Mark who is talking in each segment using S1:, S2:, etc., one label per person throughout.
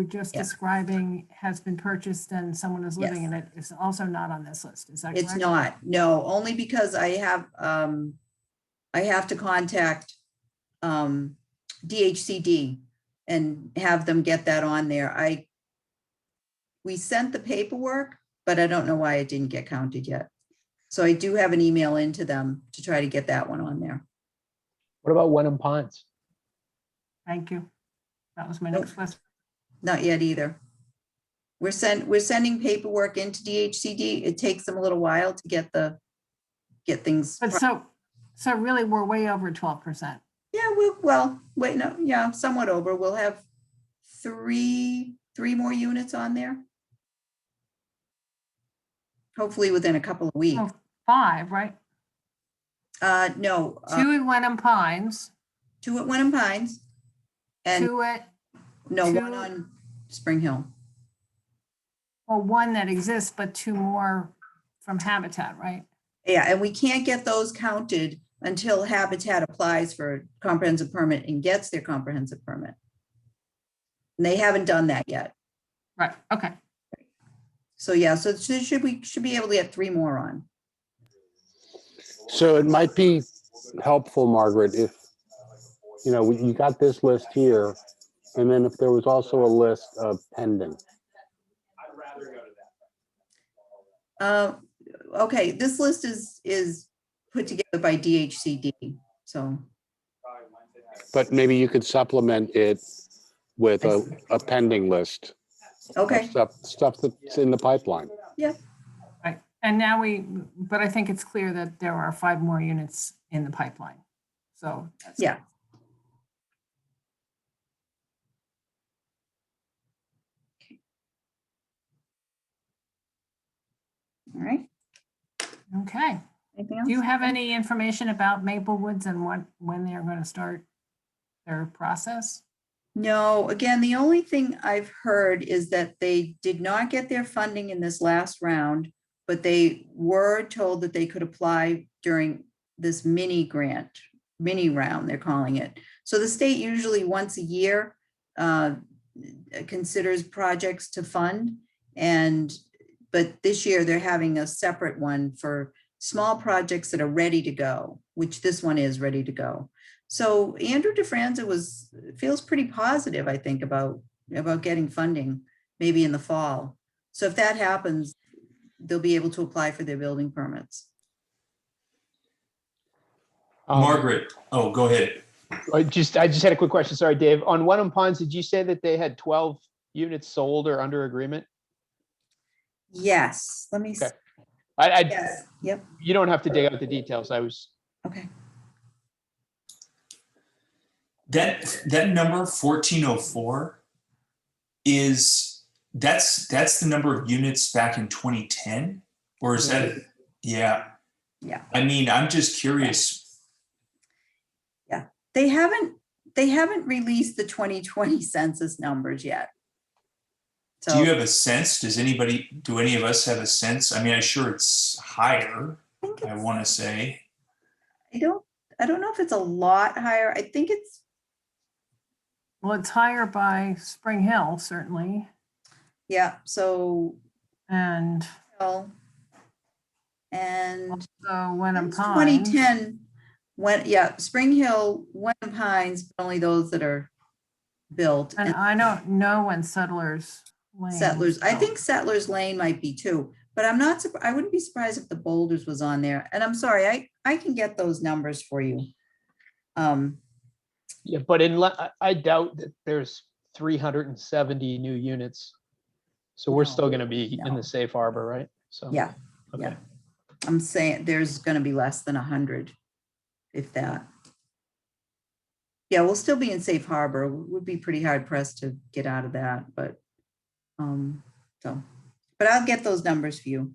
S1: we're just
S2: Yeah.
S1: describing has been purchased and someone is living
S2: Yes.
S1: in it is also not on this list. Is that correct?
S2: It's not, no, only because I have, um, I have to contact, um, DHCD and have them get that on there. I, we sent the paperwork, but I don't know why it didn't get counted yet. So I do have an email into them to try to get that one on there.
S3: What about Wenham Ponds?
S1: Thank you. That was my next question.
S2: Not yet either. We're sent, we're sending paperwork into DHCD. It takes them a little while to get the, get things.
S1: But so, so really, we're way over twelve percent.
S2: Yeah, we, well, wait, no, yeah, somewhat over. We'll have three, three more units on there. Hopefully within a couple of weeks.
S1: Oh. Five, right?
S2: Uh, no, uh,
S1: Two at Wenham Pines,
S2: two at Wenham Pines. And
S1: two at,
S2: no, one
S1: two-
S2: on Spring Hill.
S1: well, one that exists, but two more from Habitat, right?
S2: Yeah, and we can't get those counted until Habitat applies for a comprehensive permit and gets their comprehensive permit. And they haven't done that yet.
S1: Right, okay.
S2: So yeah, so should should we, should be able to get three more on.
S4: So it might be helpful, Margaret, if, you know, you got this list here. And then if there was also a list of pending,
S2: Uh, okay, this list is, is put together by DHCD, so,
S4: but maybe you could supplement it with a, a pending list. of
S2: okay,
S4: Stuff, stuff that's in the pipeline.
S1: And now we, but I think it's clear that there are five more units in the pipeline. So. that's-
S2: yeah. All right,
S1: Okay.
S2: anything
S1: Do you
S2: else?
S1: have any information about Maple Woods and what, when they're going to start their process?
S2: No, again, the only thing I've heard is that they did not get their funding in this last round, but they were told that they could apply during this mini grant, mini round, they're calling it. So the state usually once a year uh, considers projects to fund. And, but this year they're having a separate one for small projects that are ready to go, which this one is ready to go. So Andrew DeFranza was, feels pretty positive, I think, about, about getting funding, maybe in the fall. So if that happens, they'll be able to apply for their building permits.
S3: Um,
S5: Margaret, oh, go ahead.
S3: I just, I just had a quick question. Sorry, Dave. On Wenham Ponds, did you say that they had twelve units sold or under agreement?
S2: Yes, let me, s-
S3: Okay. I, I,
S2: yes, yep,
S3: you don't have to dig out the details. I was,
S2: okay.
S5: That, that number fourteen oh four is, that's, that's the number of units back in twenty ten? Or is that, yeah?
S2: Yeah.
S5: I mean, I'm just curious.
S2: They haven't, they haven't released the 2020 census numbers yet.
S5: Do you
S2: So I
S5: have a sense? Does anybody, do any of us have a sense? I mean, I'm sure it's higher,
S2: think
S5: I
S2: it's,
S5: want to say.
S2: I don't, I don't know if it's a lot higher. I think it's,
S1: Well, it's higher by Spring Hill, certainly,
S2: yeah, so,
S1: and
S2: well, and.
S1: so Wenham
S2: It's
S1: Pines.
S2: 2010, when, yeah, Spring Hill, Wenham Pines, but only those that are built.
S1: And
S2: and
S1: I don't know when Settlers Lane.
S2: Settlers, I
S1: so-
S2: think Settlers Lane might be too, but I'm not, surp- I wouldn't be surprised if the Boulders was on there. And I'm sorry, I, I can get those numbers for you. Um,
S3: yeah, but in, le- I- I doubt that there's three hundred and seventy new units. So we're
S2: No,
S3: still gonna be in
S2: no.
S3: the safe harbor, right? So.
S2: Yeah,
S3: okay.
S2: yeah. I'm saying there's gonna be less than hundred, if that. Yeah, we'll still be in safe harbor. Would be pretty hard pressed to get out of that, but, um, so, but I'll get those numbers for you.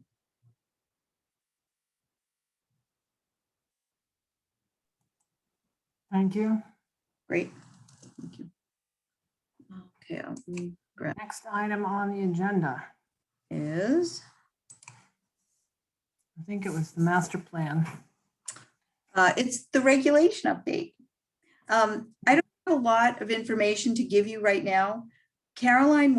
S1: Thank you.
S2: Great. Thank you. Okay, I'll move grab
S1: Next item on the agenda,
S2: is,
S1: I think it was the master plan.
S2: uh, it's the regulation update. Um, I don't have a lot of information to give you right now. Caroline